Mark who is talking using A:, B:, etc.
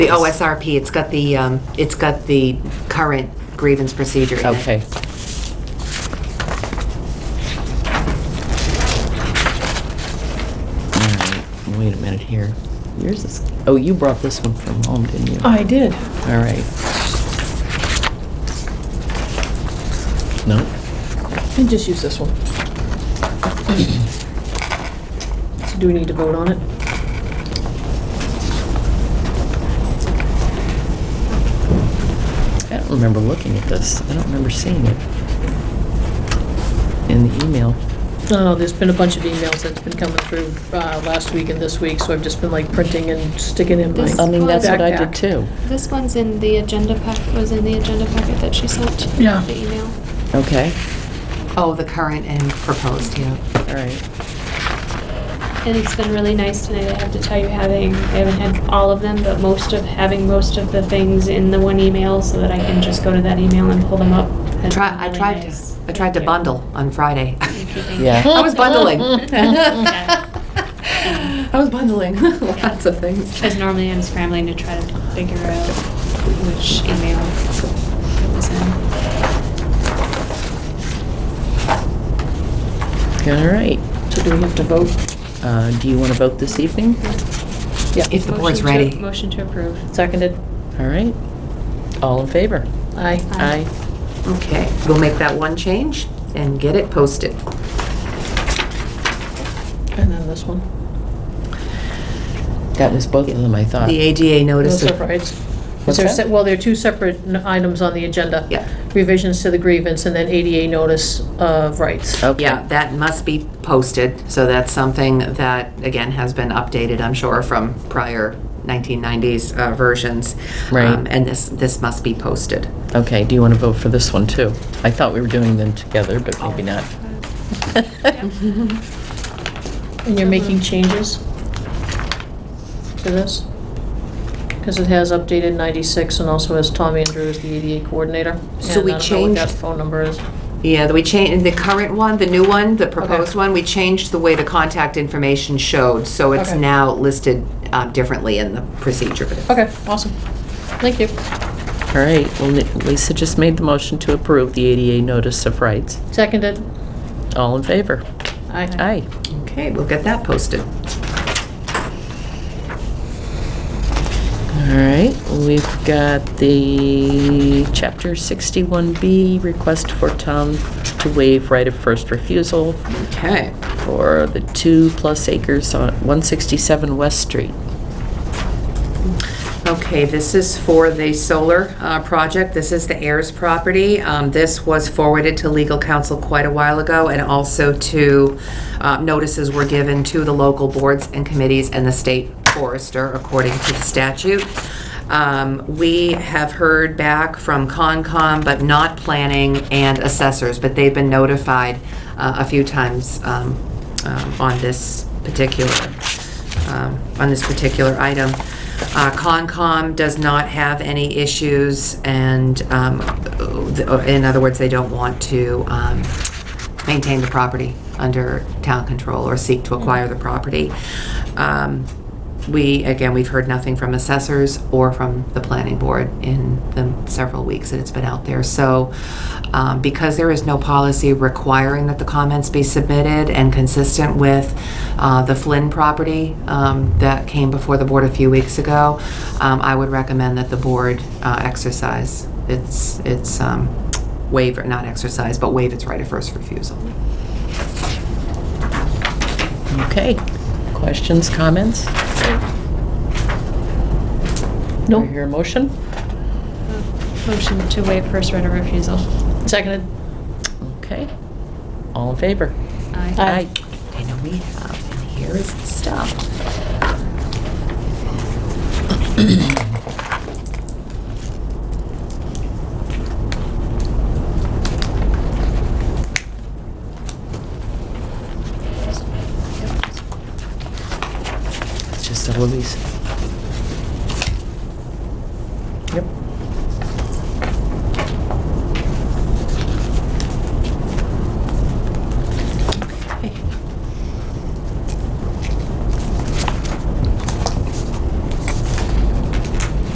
A: OSRP, it's got the, um, it's got the current grievance procedure in it.
B: Okay. All right, Wait a minute here. Yours is, oh, you brought this one from home, didn't you?
C: I did.
B: All right. No?
C: And just use this one. So do we need to vote on it?
B: I don't remember looking at this. I don't remember seeing it in the email.
C: Oh, there's been a bunch of emails that's been coming through uh, last week and this week, so I've just been like printing and sticking in my
D: This-
B: I mean, that's what I did
C: backpack.
B: too.
D: This one's in the agenda pack, was in the agenda packet that she sent.
C: Yeah.
D: The email.
B: Okay,
A: Oh, the current and proposed, yeah.
B: all right.
D: And it's been really nice tonight, I have to tell you, having, I haven't had all of them, but most of, having most of the things in the one email so that I can just go to that email and pull them up.
A: I
D: has
A: tried,
D: been
A: I
D: really
A: tried to,
D: nice.
A: I tried to
D: Thank you.
A: bundle on Friday.
D: Thank you, thank you.
B: Yeah.
A: I was bundling.
D: Yeah.
A: I was bundling lots of things.
D: Because normally I'm scrambling to try to figure out which email it was in.
B: All right.
C: So do we have to vote?
B: Uh, Do you want to vote this evening?
C: Yeah.
A: If the board's
D: Motion to-
A: ready.
D: Motion to approve.
C: Seconded?
B: All right. All in favor?
C: Aye.
D: Aye.
A: Okay, we'll make that one change and get it posted.
C: And then this one.
B: That was both of them, I thought.
A: The ADA
C: No
A: notice. of-
C: surprise. Is
B: What's
C: there,
B: that?
C: se- well, there are two separate n- items on the agenda.
A: Yeah.
C: Revisions to the grievance and then ADA notice of rights.
B: Okay.
A: Yeah, that must be posted, so that's something that, again, has been updated, I'm sure, from prior 1990s uh, versions.
B: Right.
A: Um, And this, this must be posted.
B: Okay, do you want to vote for this one too? I thought we were doing them together, but maybe not.
A: Oh.
C: And you're making changes to this? Because it has updated 96 and also has Tommy Andrew as the ADA coordinator.
A: So we
C: And I don't know what that
A: changed-
C: phone number is.
A: Yeah, we changed, the current one, the new one, the proposed one, we changed the way the contact information showed, so it's
C: Okay.
A: now listed uh, differently in the procedure.
C: Okay, awesome. Thank you.
B: All right, well, Lisa just made the motion to approve the ADA notice of rights.
C: Seconded.
B: All in favor?
C: Aye.
B: Aye.
A: Okay, we'll get that posted.
B: All right, we've got the Chapter 61B request for town to waive right of first refusal
A: Okay.
B: for the two-plus acres on 167 West Street.
A: Okay, this is for the solar uh, project. This is the Ayers property. Um, This was forwarded to legal counsel quite a while ago, and also to, uh, notices were given to the local boards and committees and the state forester according to the statute. Um, We have heard back from Concom, but not planning and assessors, but they've been notified uh, a few times um, um, on this particular um, on this particular item. Uh, Concom does not have any issues, and, um, uh, in other words, they don't want to um, maintain the property under town control or seek to acquire the property. Um, We, again, we've heard nothing from assessors or from the planning board in the several weeks that it's been out there. So um, because there is no policy requiring that the comments be submitted and consistent with uh, the Flynn property um, that came before the board a few weeks ago, um, I would recommend that the board uh, exercise its, its um, waiver, not exercise, but waive its right of first refusal.
B: Okay, questions, comments? Do I
C: Nope.
B: hear a motion?
D: Motion to waive first right of refusal.
C: Seconded.
B: Okay, all in favor?
D: Aye.
C: Aye.
A: I know we have, and here is the stuff.